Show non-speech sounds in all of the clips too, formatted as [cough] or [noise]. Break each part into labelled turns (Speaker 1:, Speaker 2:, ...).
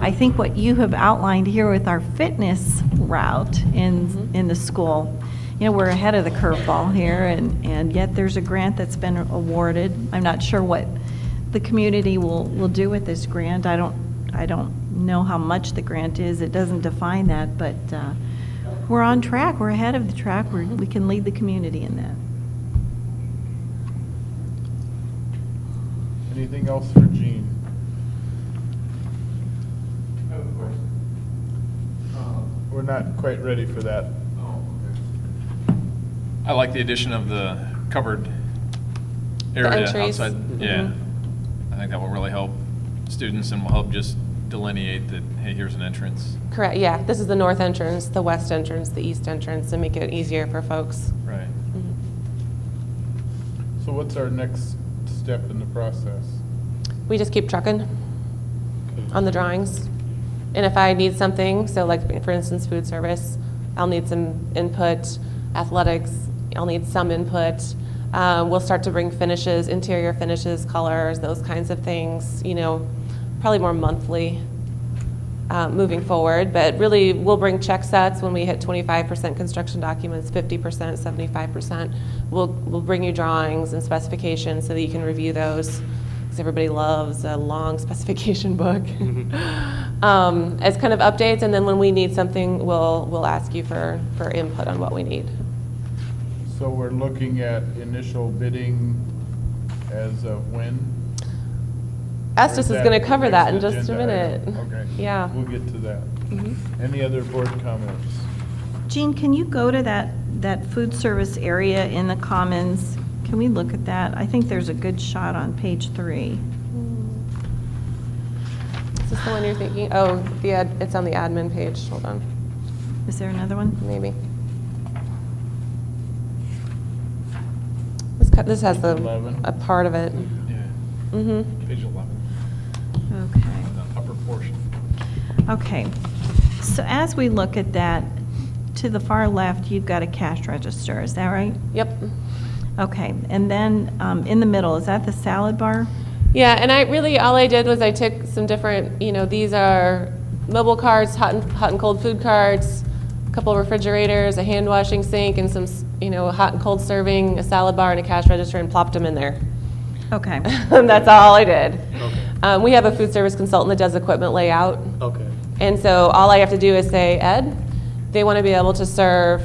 Speaker 1: I think what you have outlined here with our fitness route in, in the school, you know, we're ahead of the curveball here, and, and yet there's a grant that's been awarded. I'm not sure what the community will, will do with this grant. I don't, I don't know how much the grant is. It doesn't define that, but uh, we're on track. We're ahead of the track. We're, we can lead the community in that.
Speaker 2: Anything else for Gene?
Speaker 3: I have a question. Um,
Speaker 2: We're not quite ready for that.
Speaker 3: oh,
Speaker 4: I like the addition of the covered area
Speaker 5: entries.
Speaker 4: outside. Yeah.
Speaker 5: Mhm.
Speaker 4: I think that will really help students and will help just delineate that, hey, here's an entrance.
Speaker 5: Correct, yeah. This is the north entrance, the west entrance, the east entrance, to make it easier for folks.
Speaker 4: Right.
Speaker 5: Mhm.
Speaker 2: So what's our next step in the process?
Speaker 5: We just keep trucking on the drawings. And if I need something, so like, for instance, food service, I'll need some input, athletics, I'll need some input. Uh, We'll start to bring finishes, interior finishes, colors, those kinds of things, you know, probably more monthly uh, moving forward. But really, we'll bring check sets when we hit 25% construction documents, 50%, 75%. We'll, we'll bring you drawings and specifications so that you can review those, because everybody loves a long [laughs] specification book.
Speaker 2: Mm-hmm.
Speaker 5: Um, As kind of updates, and then when we need something, we'll, we'll ask you for, for input on what we need.
Speaker 2: So we're looking at initial bidding as of when?
Speaker 5: Estes is
Speaker 2: Or
Speaker 5: going to cover that in
Speaker 2: next
Speaker 5: just a
Speaker 2: agenda
Speaker 5: minute.
Speaker 2: item? Okay.
Speaker 5: Yeah. Mm-hmm.
Speaker 2: We'll get to that. Any other board comments?
Speaker 1: Jean, can you go to that, that food service area in the Commons? Can we look at that? I think there's a good shot on page three.
Speaker 5: Is this the one you're thinking? Oh, the, ad- it's on the admin page, hold on,
Speaker 1: Is there another one?
Speaker 5: maybe. This co- This has the,
Speaker 2: Eleven.
Speaker 5: a part of it.
Speaker 4: Yeah.
Speaker 5: Mm-hmm.
Speaker 4: Page 11,
Speaker 1: Okay.
Speaker 4: on the upper portion.
Speaker 1: Okay. So as we look at that, to the far left, you've got a cash register, is that right?
Speaker 5: Yep.
Speaker 1: Okay, and then um, in the middle, is that the salad bar?
Speaker 5: Yeah, and I really, all I did was I took some different, you know, these are mobile carts, hot and, hot and cold food carts, a couple refrigerators, a hand washing sink, and some, s- you know, hot and cold serving, a salad bar, and a cash register, and plopped them in there. [laughs]
Speaker 1: Okay,
Speaker 5: And that's all I did.
Speaker 3: Okay.
Speaker 5: Um, we have a food service consultant that does equipment layout.
Speaker 3: Okay.
Speaker 5: And so all I have to do is say, Ed, they want to be able to serve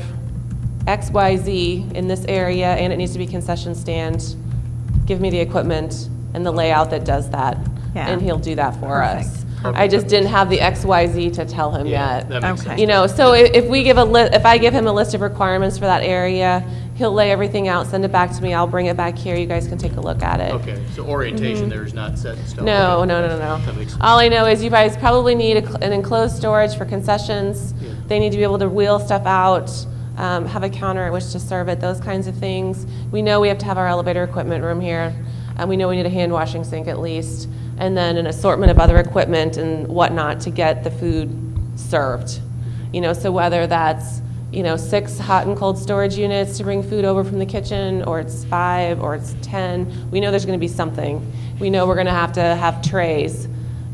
Speaker 5: X, Y, Z in this area, and it needs to be concession stand. Give me the equipment and the layout that does that.
Speaker 1: Yeah.
Speaker 5: And he'll do that for us.
Speaker 3: Perfect.
Speaker 5: I just didn't have the X, Y, Z to tell him
Speaker 3: Yeah,
Speaker 5: yet.
Speaker 3: that makes
Speaker 1: Okay.
Speaker 3: sense.
Speaker 5: You know, so i- if we give a li, if I give him a list of requirements for that area, he'll lay everything out, send it back to me, I'll bring it back here, you guys can take a look at it.
Speaker 3: Okay, so orientation there is not set in
Speaker 5: Mm-hmm.
Speaker 3: stone.
Speaker 5: No,
Speaker 3: Okay.
Speaker 5: no, no, no,
Speaker 3: That
Speaker 5: no.
Speaker 3: makes
Speaker 5: All
Speaker 3: sense.
Speaker 5: I know is you guys probably need a cl- an enclosed storage for concessions.
Speaker 3: Yeah.
Speaker 5: They need to be able to wheel stuff out, um, have a counter at which to serve it, those kinds of things. We know we have to have our elevator equipment room here, and we know we need a hand washing sink at least, and then an assortment of other equipment and whatnot to get the food served. You know, so whether that's, you know, six hot and cold storage units to bring food over from the kitchen, or it's five, or it's 10, we know there's going to be something. We know we're going to have to have trays.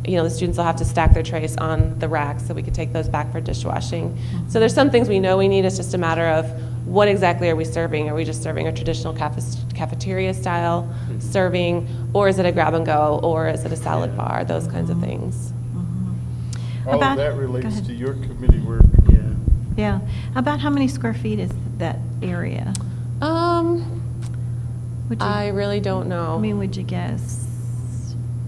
Speaker 5: You know, the students will have to stack their trays on the racks so we can take those back for dishwashing. So there's some things we know we need. It's just a matter of what exactly are we serving? Are we just serving a traditional cafe- cafeteria style
Speaker 3: Mm-hmm.
Speaker 5: serving, or is it a grab and go, or is it a salad bar? Those kinds of things.
Speaker 2: All
Speaker 1: About-
Speaker 2: of Oh, that
Speaker 1: go
Speaker 2: relates
Speaker 1: ahead.
Speaker 2: to your committee work.
Speaker 3: Yeah.
Speaker 1: yeah. About how many square feet is that area?
Speaker 5: Um,
Speaker 1: Would you-
Speaker 5: I really don't know.
Speaker 1: I mean, would you guess?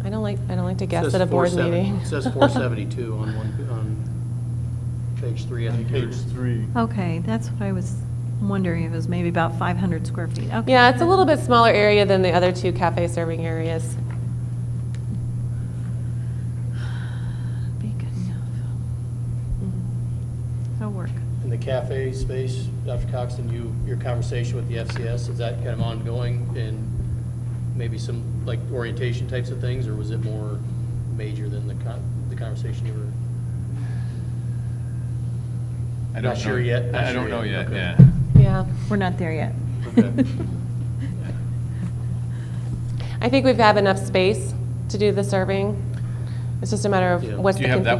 Speaker 5: I don't like I don't like to guess
Speaker 3: Says
Speaker 5: at a board
Speaker 3: 470
Speaker 5: meeting.
Speaker 3: Says
Speaker 5: [laughs]
Speaker 3: 472 on one, on page three, I
Speaker 2: On
Speaker 3: think.
Speaker 2: page three.
Speaker 5: Oh,
Speaker 1: Okay, that's what I was wondering, if it was maybe about 500 square feet. Okay.
Speaker 5: Yeah, it's a little bit smaller area than the other two cafe serving areas.
Speaker 1: Be good enough. That'll work.
Speaker 3: In the cafe space, Dr. Coxton, you, your conversation with the FCS, is that kind of ongoing? And maybe some, like, orientation types of things, or was it more major than the con, the conversation you were?
Speaker 4: I
Speaker 3: Not
Speaker 4: don't know-
Speaker 3: sure yet, not
Speaker 4: I I
Speaker 3: sure
Speaker 4: don't know
Speaker 3: yet,
Speaker 4: yet,
Speaker 3: okay.
Speaker 4: yeah.
Speaker 5: Yeah.
Speaker 1: We're not there yet. [laughs]
Speaker 3: Okay.
Speaker 5: I think we've got enough space to do the serving. It's just a matter
Speaker 3: Yeah.
Speaker 5: of what's
Speaker 4: Do
Speaker 5: the
Speaker 4: you have that